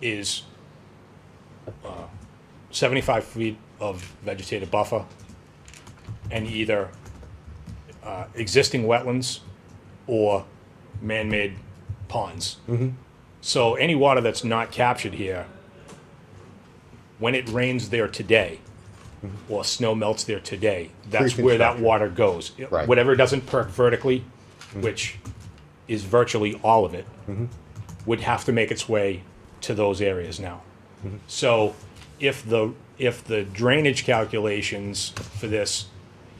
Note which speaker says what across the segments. Speaker 1: is uh, 75 feet of vegetated buffer and either uh, existing wetlands or man-made ponds.
Speaker 2: Mm-hmm.
Speaker 1: So any water that's not captured here, when it rains there today, or snow melts there today, that's where that
Speaker 2: Mm-hmm. Pre-construction.
Speaker 1: water goes.
Speaker 2: Right. Mm-hmm.
Speaker 1: Whatever doesn't perk vertically, which is virtually all of it, would have to make its way to those areas now. So if the, if the drainage calculations for this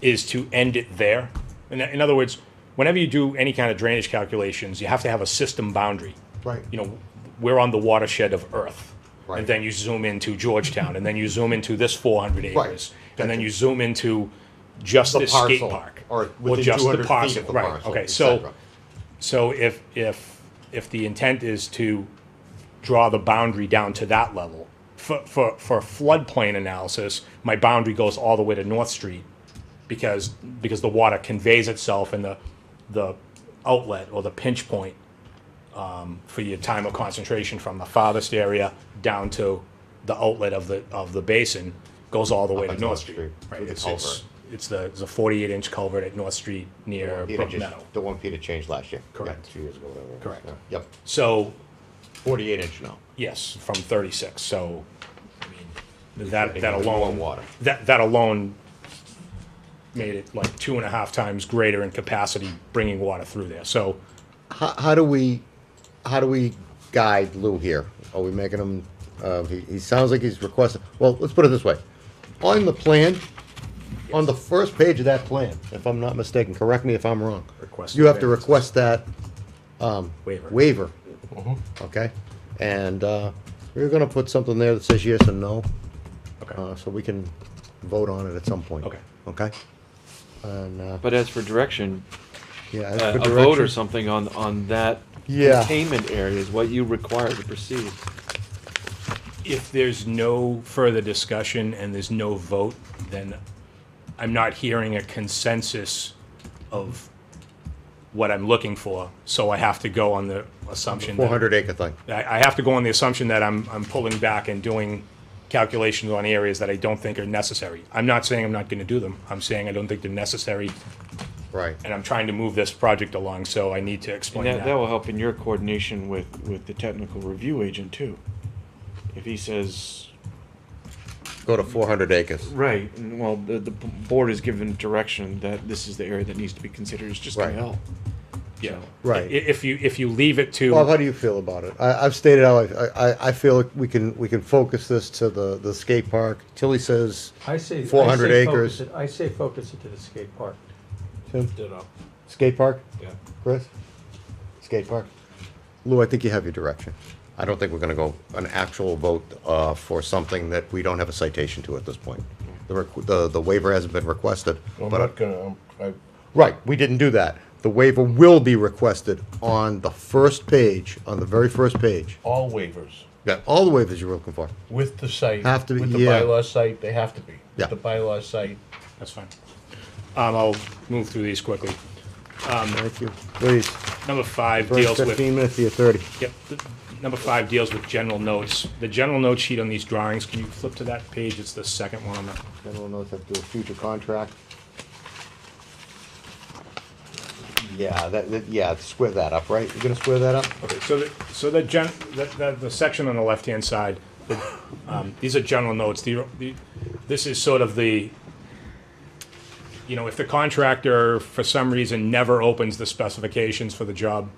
Speaker 1: is to end it there, in, in other words, whenever you do any kind of drainage calculations, you have to have a system boundary.
Speaker 2: Right.
Speaker 1: You know, we're on the watershed of Earth.
Speaker 2: Right.
Speaker 1: And then you zoom into Georgetown, and then you zoom into this four hundred
Speaker 2: Right.
Speaker 1: acres. And then you zoom into just
Speaker 2: The
Speaker 1: this skate
Speaker 2: parcel,
Speaker 1: park.
Speaker 2: or within
Speaker 1: just the
Speaker 2: 200 feet
Speaker 1: parcel,
Speaker 2: of the
Speaker 1: right,
Speaker 2: parcel,
Speaker 1: Okay,
Speaker 2: et
Speaker 1: so,
Speaker 2: cetera.
Speaker 1: so if, if, if the intent is to draw the boundary down to that level, for, for, for floodplain analysis, my boundary goes all the way to North Street because, because the water conveys itself in the, the outlet or the pinch point um, for your time of concentration from the farthest area down to the outlet of the, of the basin goes all the way to
Speaker 2: at
Speaker 1: North
Speaker 2: North
Speaker 1: Street.
Speaker 2: Street,
Speaker 1: Right,
Speaker 2: with the
Speaker 1: it's, it's, it's the, it's a forty-eight inch culvert at North Street near
Speaker 2: Peter
Speaker 1: Brook
Speaker 2: just-
Speaker 1: Meadow.
Speaker 2: The one Peter changed last year. Yeah,
Speaker 1: Correct.
Speaker 2: Two years ago, whatever.
Speaker 1: Correct.
Speaker 2: Yeah. Yep,
Speaker 1: So,
Speaker 2: forty-eight inch now.
Speaker 1: yes, from thirty-six, so, I mean, that,
Speaker 2: Taking
Speaker 1: that
Speaker 2: more
Speaker 1: alone.
Speaker 2: water.
Speaker 1: That, that alone made it like two and a half times greater in capacity bringing water through there, so.
Speaker 2: How, how do we, how do we guide Lou here? Are we making him, uh, he, he sounds like he's requesting, well, let's put it this way. On the plan, on the first page of that plan, if I'm not mistaken, correct me if I'm wrong.
Speaker 1: Request
Speaker 2: You have to
Speaker 1: variance.
Speaker 2: request that
Speaker 1: Waiver.
Speaker 2: waiver. Okay, and, uh, we're gonna put something there that says yes and no. uh,
Speaker 1: Okay,
Speaker 2: so we can vote on it at some point.
Speaker 1: Okay.
Speaker 2: Okay? And, uh,
Speaker 3: But as for direction,
Speaker 2: yeah, as
Speaker 3: uh,
Speaker 2: for
Speaker 3: a vote or
Speaker 2: direction-
Speaker 3: something on, on that
Speaker 2: Yeah.
Speaker 3: containment area is what you require to proceed.
Speaker 1: if there's no further discussion and there's no vote, then I'm not hearing a consensus of what I'm looking for, so I have to go on the assumption that.
Speaker 2: 400 acre thing.
Speaker 1: I, I have to go on the assumption that I'm, I'm pulling back and doing calculations on areas that I don't think are necessary. I'm not saying I'm not gonna do them, I'm saying I don't think they're necessary,
Speaker 2: Right.
Speaker 1: and I'm trying to move this project along, so I need to
Speaker 3: And
Speaker 1: explain
Speaker 3: that, that
Speaker 1: that.
Speaker 3: will help in your coordination with, with the technical review agent too. If he says,
Speaker 2: Go to 400 acres.
Speaker 3: right, and well, the, the board is given direction that this is the area that needs to be considered, it's just
Speaker 2: Right.
Speaker 3: gonna help.
Speaker 1: Yeah. I-
Speaker 2: Right.
Speaker 1: If you, if you leave it to.
Speaker 2: Bob, how do you feel about it? I, I've stated how I, I, I feel like we can, we can focus this to the, the skate park. Tilly says
Speaker 4: I say. I
Speaker 2: 400
Speaker 4: say
Speaker 2: acres.
Speaker 4: focus it- I say focus it to the skate park.
Speaker 2: Tim?
Speaker 4: Ditto.
Speaker 2: skate park,
Speaker 4: Yeah.
Speaker 2: Chris? Skate park? Lou, I think you have your direction. I don't think we're gonna go an actual vote, uh, for something that we don't have a citation to at this point. The, requ- the, the waiver hasn't been requested,
Speaker 5: I'm
Speaker 2: but
Speaker 5: not gonna, um, I,
Speaker 2: Right, we didn't do that. The waiver will be requested on the first page, on the very first page.
Speaker 5: all waivers
Speaker 2: Yeah, all the waivers you're looking for.
Speaker 5: with the site.
Speaker 2: Have to be-
Speaker 5: With the
Speaker 2: yeah.
Speaker 5: bylaw site, they have to be.
Speaker 2: Yeah.
Speaker 5: The bylaw site,
Speaker 1: That's fine. Um, I'll move through these quickly.
Speaker 2: Thank you. Please,
Speaker 1: Number five
Speaker 2: first
Speaker 1: deals with.
Speaker 2: fifteen minutes to your thirty.
Speaker 1: Yep, th- number five deals with general notes. The general note sheet on these drawings, can you flip to that page? It's the second one on the,
Speaker 2: General notes have to do a future contract. Yeah, that, that, yeah, square that up, right? You're gonna square that up?
Speaker 1: okay, so the, so the gen, the, the, the section on the left-hand side, the, um, these are general notes. The, the, this is sort of the, you know, if the contractor for some reason never opens the specifications for the job,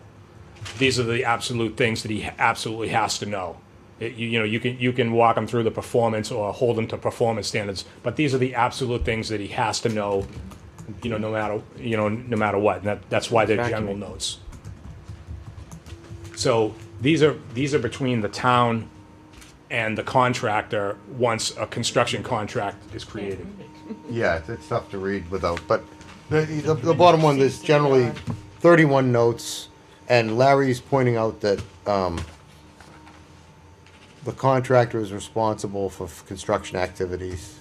Speaker 1: these are the absolute things that he absolutely has to know. It- you, you know, you can you can walk him through the performance or hold him to performance standards, but these are the absolute things that he has to know. You know, no matter you know no matter what, and that, that's why they're
Speaker 3: Back to
Speaker 1: general
Speaker 3: me.
Speaker 1: notes. So these are these are between the town and the contractor once a construction contract is created.
Speaker 2: Yeah, it's, it's tough to read without, but the, the, the bottom one is generally thirty-one notes, and Larry's pointing out that, um, the contractor is responsible for f- construction activities.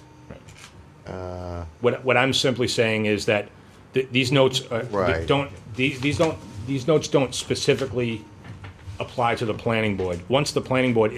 Speaker 1: What, what I'm simply saying is that th- these notes uh,
Speaker 2: Right.
Speaker 1: don't, these, these don't, these notes don't specifically apply to the planning board. Once the planning board